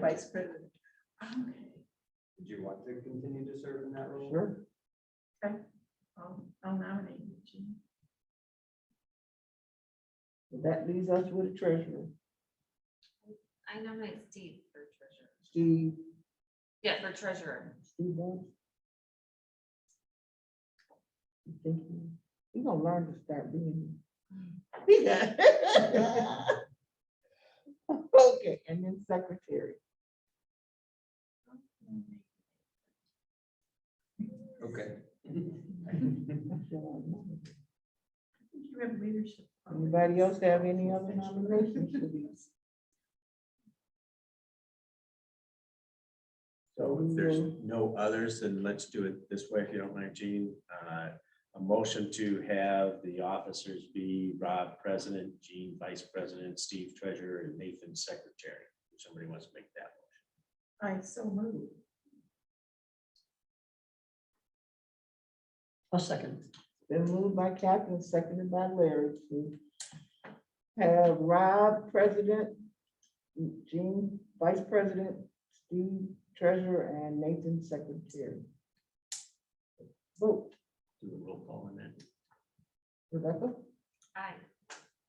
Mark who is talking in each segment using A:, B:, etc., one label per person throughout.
A: vice president. Okay,
B: Did you want to continue to serve in that role?
C: Sure.
A: I'll I'll nominate you, Jean.
C: That leaves us with the treasurer,
D: I nominate Steve for treasurer.
C: Steve,
D: Yeah, for treasurer.
C: Steve Ball. You think he- He gonna learn to start being. He got- Okay, and then secretary.
B: Okay.
C: Anybody
A: I think You have leadership. qualities.
C: else have any other nominations for these?
E: So
C: Mm-hmm.
E: if there's no others, then let's do it this way, if you don't mind, Gene. Uh, A motion to have the officers be Rob President, Gene Vice President, Steve Treasurer, and Nathan Secretary. If Somebody wants to make that.
A: I so moved.
F: A second.
C: Been moved by Captain, seconded by Larry to have Rob president, Gene vice president, Steve treasurer, and Nathan secretary. Vote
E: Do the roll call on that.
C: Rebecca,
D: Aye.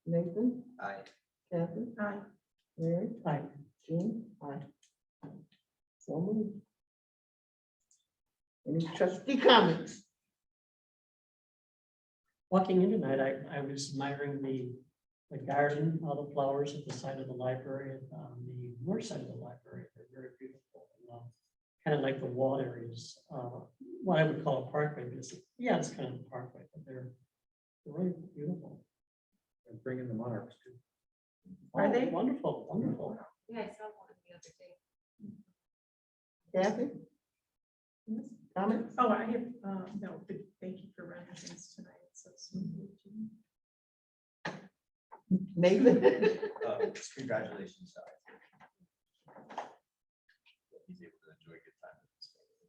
C: Nathan,
B: Aye.
C: Captain,
A: Aye.
C: Larry,
F: Aye.
C: Gene, aye. So moved. Any trustee comments?
F: Walking in tonight, I, I was admiring the, the garden, all the flowers at the side of the library and on the north side of the library. They're very beautiful. um, Kind of like the wall areas, uh, what I would call a parkway, but it's, yeah, it's kind of a parkway, but they're they're really beautiful.
B: And bring in the monarchs. too.
A: Are
F: Oh,
A: they?
F: Wonderful, wonderful.
D: Yeah, I saw one the other day.
C: Kathy,
A: Yes.
C: comments?
A: Oh, I have, uh, no, but thank you for running things tonight. So smoothly, Jean.
C: Nathan?
B: Uh, Congratulations. Sally. He's able to enjoy a good time. with his family.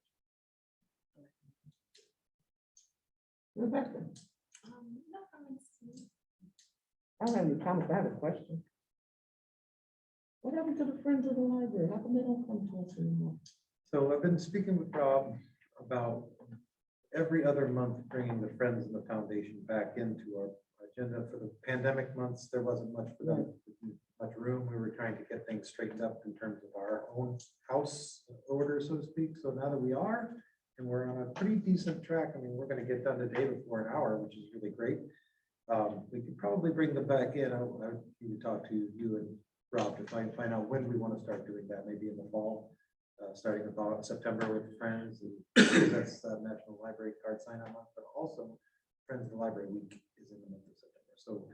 C: Rebecca?
D: Um, no comments.
C: I don't have any comments, I have a question. What happened to the Friends of the Library? How come they don't come to us anymore?
G: So I've been speaking with Rob about every other month bringing the Friends and the Foundation back into our agenda for the pandemic months. There wasn't much for them, much room. We were trying to get things straightened up in terms of our own house order, so to speak. So now that we are, and we're on a pretty decent track, I mean, we're gonna get done today before an hour, which is really great. Um, We could probably bring them back in. I I need to talk to you and Rob to find, find out when we want to start doing that, maybe in the fall uh, starting about September with Friends and that's uh, National Library Card Sign On Month, but also Friends of the Library Week is in the month of September. So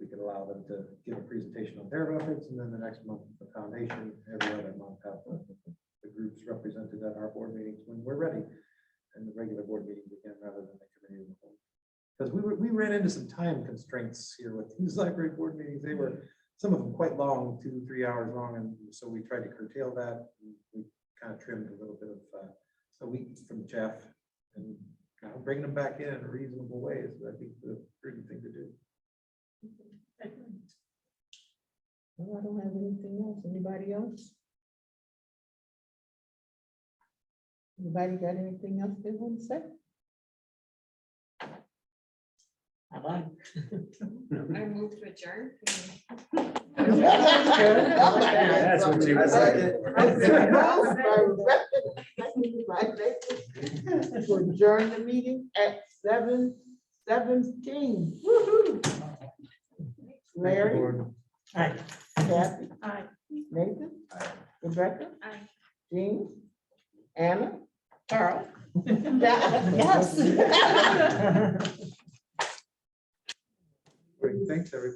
G: we could allow them to give a presentation on their efforts and then the next month, the foundation, every other month, have the groups represented at our board meetings when we're ready and the regular board meetings again, rather than the committee. Because we were, we ran into some time constraints here with these library board meetings. They were some of them quite long, two, three hours long, and so we tried to curtail that. We kind of trimmed a little bit of uh, a week from Jeff and kind of bringing them back in in a reasonable way is, I think, the prudent thing to do.
A: I agree.
C: No, Oh, I don't have anything else. Anybody else? Anybody got anything else they want to say?
F: Bye-bye.
D: I moved to adjourn.
C: Oh
E: That's what you-
B: I second.
C: To Adjourn the meeting at seven seventeen. Larry,
F: Aye.
C: Kathy,
A: Aye.
C: Nathan, Rebecca,
D: Aye.
C: Jean, Anna, Carl. Yes.
G: Great, thanks, everybody.